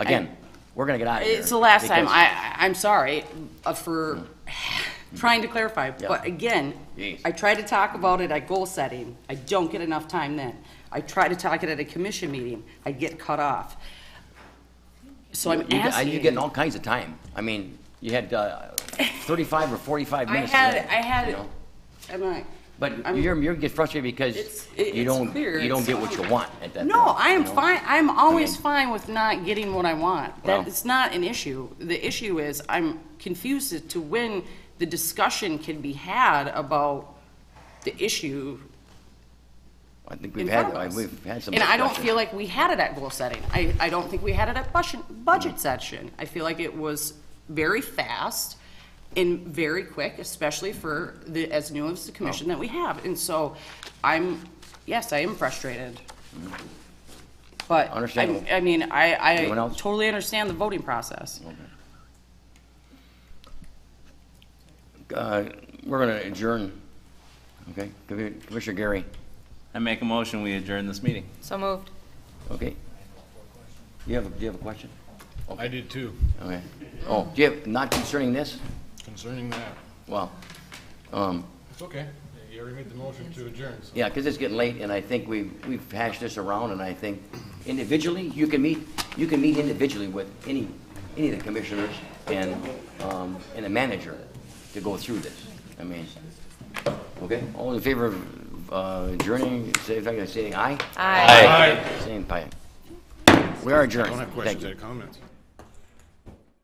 Again, we're gonna get out of here. It's the last time, because- Hmm. I, I- I'm sorry uh, for trying to clarify, but again, Jeez. I try to talk about it at goal setting, I don't get enough time then. I try to talk it at a commission meeting, I get cut off. So I'm You get- asking. You're getting all kinds of time. I mean, you had uh, thirty-five or forty-five I minutes. had, today, I you had, know? I'm like. But I'm- you're, you're get frustrated It's- because it- you it's don't, clear, you don't it's get what you fine. want at that point. No, I am you know? fine, I'm always mean- fine with not getting what I want. Well- That, it's not an issue. The issue is, I'm confused as to when the discussion can be had about the issue I think in we've front had, of I- us. we've had some. And I don't discussion. feel like we had it at goal setting. I, I don't think we had it at budget, budget Mm. session. I feel like it was very fast and very quick, especially for the, as new as the commission that we have. And so I'm, yes, I am frustrated. But, I, Mm. Understandable. I mean, I, Anyone I else? totally understand the voting process. Uh, We're gonna adjourn, okay? Commi- Commissioner Gary, I make a motion, we adjourn this meeting. So moved. okay? You have, a- do you have a question? I did too, Okay. Oh, do you have, not concerning this? concerning that. Well, um, It's okay, you already made the motion to adjourn, so. Yeah, because it's getting late, and I think we've, we've hashed this around, and I think individually, you can meet, you can meet individually with any, any of the commissioners and, um, and a manager to go through this. I mean, okay, all in favor of uh, adjourning, say, if I can say aye? Aye. Same, aye. We are adjourned, I don't have thank questions, I you. have comments.